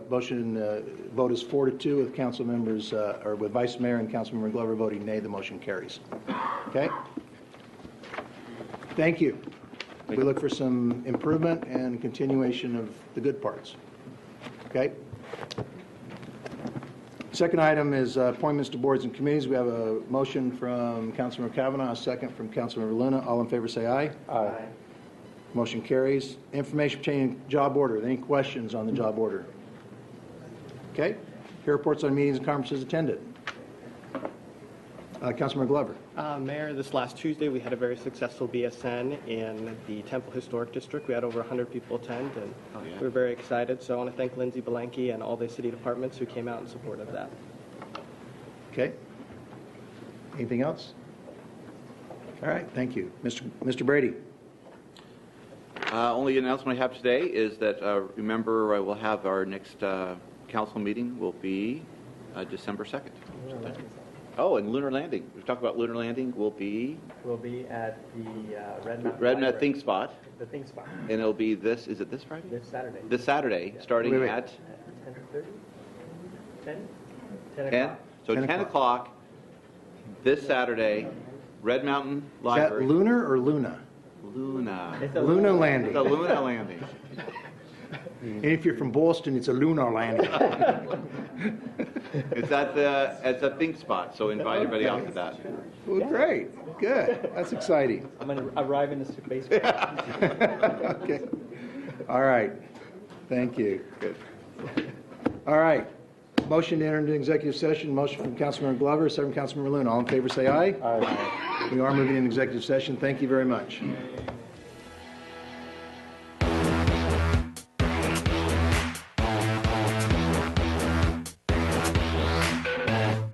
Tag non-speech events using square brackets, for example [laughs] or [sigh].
motion, uh, vote is four to two with council members, uh, or with Vice Mayor and Councilmember Glover voting nay, the motion carries. Okay? Thank you. We look for some improvement and continuation of the good parts. Okay? Second item is uh, appointments to boards and committees. We have a motion from Councilmember Kavanaugh, a second from Councilmember Luna. All in favor, say aye. Aye. Motion carries. Information pertaining to job order. Any questions on the job order? Okay. Here reports on meetings and conferences attended. Uh, Councilmember Glover. Uh, Mayor, this last Tuesday, we had a very successful BSN in the Temple Historic District. We had over 100 people attend, and Oh, we were very excited. So I want to thank Lindsay Belenky and all the city departments who came out in support of that. Okay. Anything else? All right, thank you. Mr. Mr. Brady. Uh, Only announcement I have today is that, uh, remember, I will have our next uh, council meeting will be uh, December 2nd. Oh, and lunar landing. We've talked about lunar landing will be will be at the uh, Red Mountain. Red Mountain Library. Think Spot, The Think Spot, and it'll be this, is it this Friday? this Saturday. This Saturday, starting Wait, wait. at Ten thirty? Ten? Ten 10? o'clock. So 10 10 o'clock this Saturday, Red Mountain Is that Library. Lunar or Luna? Luna. It's a- Luna The landing. Luna landing. And if you're from Boston, it's a lunar landing. It's at the, it's a Think Spot, so invite everybody out to that. Well, great, good, that's exciting. I'm going to arrive in the space. All [laughs] Okay, all right, thank you. Good. All right, motion to enter into executive session, motion from Councilmember Glover, second from Councilmember Luna. All in favor, say aye. Aye. We are moving into executive session, thank you very much.